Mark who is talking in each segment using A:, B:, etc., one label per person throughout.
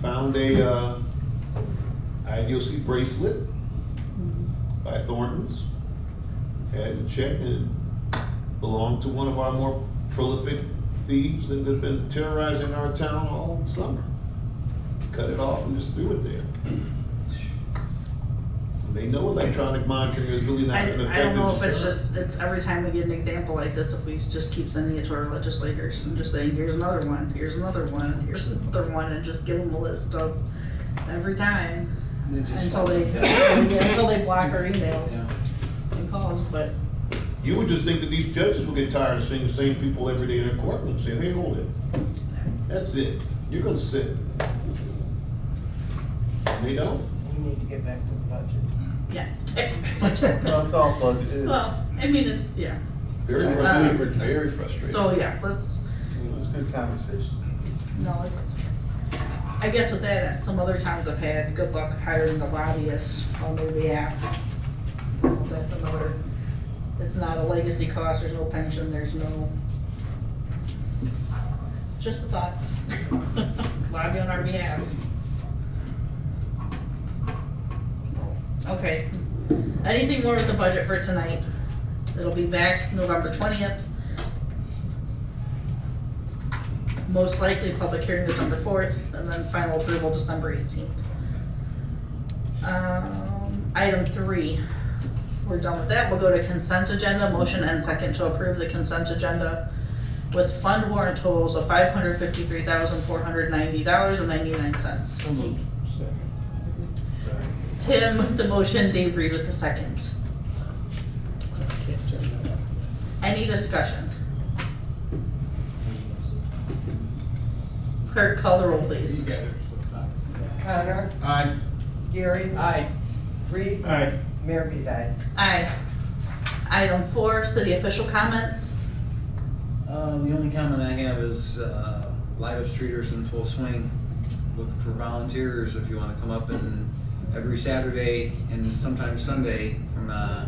A: found a uh, IDOC bracelet
B: Mm-hmm.
A: by Thornton's. Had it checked and it belonged to one of our more prolific thieves that has been terrorizing our town all summer. Cut it off and just threw it there. They know electronic monitoring is really not
B: I,
A: an effective.
B: I don't know if it's
A: deterrent.
B: just, it's every time we get an example like this, if we just keep sending it to our legislators and just saying, here's another one, here's another one, here's another one, and just give them a list of every time.
C: They just
B: Until they,
C: fucking do it.
B: until they block our emails
C: Yeah.
B: and calls, but
A: You would just think that these judges will get tired of seeing the same people every day in their courtroom, say, hey, hold it. That's it. You're gonna sit. And They don't.
C: We need to get back to the budget.
B: yes. back to the budget.
C: No, it's all budget.
B: Well, I mean, it's, yeah,
D: Very frustrating, very frustrating.
B: so, yeah, let's,
C: It's good conversation.
B: no, it's, I guess with that, some other times I've had good luck hiring the lobbyist on their behalf. That's another, it's not a legacy cost, there's no pension, there's no, just a thought. Lobby on our behalf. Okay, anything more with the budget for tonight? It'll be back November twentieth. Most likely, public hearing December fourth, and then final approval December eighteenth. Um, item three, we're done with that, we'll go to consent agenda, motion and second to approve the consent agenda with fund warrant totals of five hundred fifty-three thousand, four hundred ninety dollars and ninety-nine cents.
C: So moved. Sorry.
B: Tim with the motion, Dave Reed with the second. Any discussion? Clerk, call the roll, please.
C: Connor?
A: Aye.
C: Gary? Aye. Reed? Aye. Mayor B. Aye.
B: Aye. Item four, city official comments.
E: Uh, the only comment I have is, uh, Live of Streeters in full swing, looking for volunteers if you wanna come up and every Saturday and sometimes Sunday from, uh,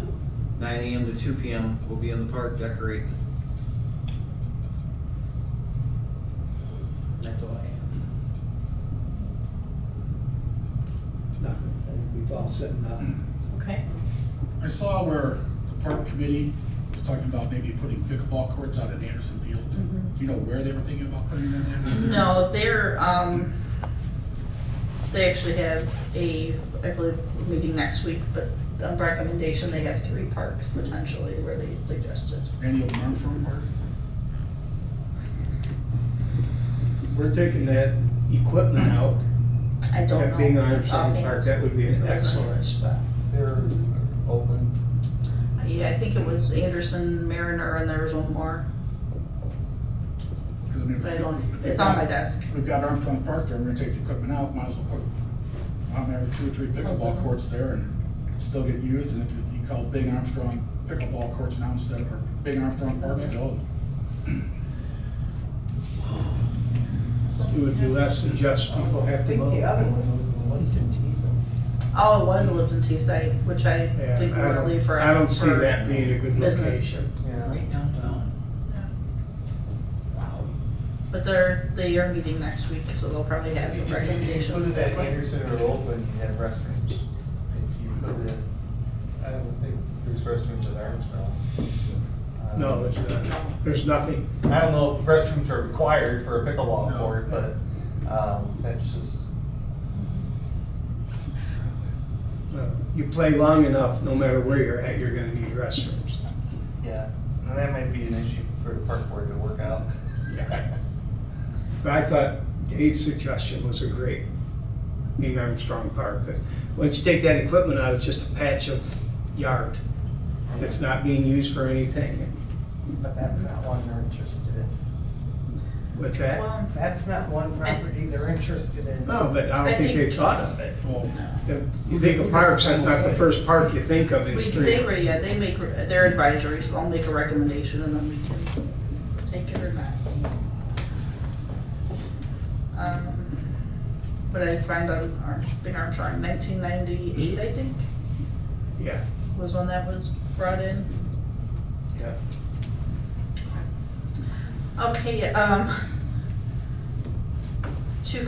E: nine AM to two PM, we'll be in the park decorating. That's all I have.
F: Nothing, I think we've all said nothing.
B: Okay.
G: I saw where the park committee was talking about maybe putting pickleball courts out at Anderson Field.
B: Mhm.
G: Do you know where they were thinking about putting them at?
B: No, they're, um, they actually have a, I believe, meeting next week, but on recommendation, they have three parks potentially where they suggested.
G: Any of Armstrong Park?
F: We're taking that equipment out,
B: I don't know.
F: that being on Sonic
B: offhand.
F: Park, that would be an excellent spot.
C: They're open.
B: Yeah, I think it was Anderson, Mariner, and there was one more,
G: 'Cause I mean, if
B: but I
G: we-
B: don't,
G: if we
B: it's on my
G: got-
B: desk.
G: if We've got Armstrong Park there, we're gonna take the equipment out, might as well put, um, every two or three pickleball
B: Something.
G: courts there and it'd still get used and it could be called Big Armstrong Pickleball Courts now instead of, or Big Armstrong Park still.
F: It would be less than just people
C: I
F: have to
C: think the
F: mow.
C: other one was the Lincoln Teeter.
B: Oh, it was a Lipton Tea site, which I
F: Yeah,
B: didn't
F: I
B: really
F: don't,
B: for.
F: I don't see
B: for
F: that being a good
B: business.
F: location.
C: Yeah.
E: Right downtown. Wow.
B: But they're, they are meeting next week, so they'll probably have your recommendation.
H: If you put it at Anderson or Oakland, you have restrooms. If you put it, I don't think there's restrooms at Armstrong. Uh,
F: No, there's not, there's nothing.
H: I don't know if restrooms are required for a pickleball
G: No.
H: court, but, um, that's just,
F: No. Uh, You play long enough, no matter where you're at, you're gonna need restrooms.
H: yeah. And that might be an issue for the park board to work out.
F: Yeah. But I thought Dave's suggestion was a great, being Armstrong Park. but Once you take that equipment out, it's just a patch of yard that's not being used for anything.
C: But that's not one they're interested in.
F: What's that?
B: Well,
C: That's not one property they're interested in.
F: No, but I
B: I
F: don't think
B: think-
F: they thought of it.
G: Well,
F: The- You think of parks, that's not the first park you think of in
B: We, they
F: street.
B: were, yeah, they make, re- they're advisory, so I'll make a recommendation and then we can take it or not. Um, What I find on Arm- Big Armstrong, nineteen ninety-eight, I think,
F: Yeah,
B: was when that was brought in.
F: yeah.
B: Okay, um,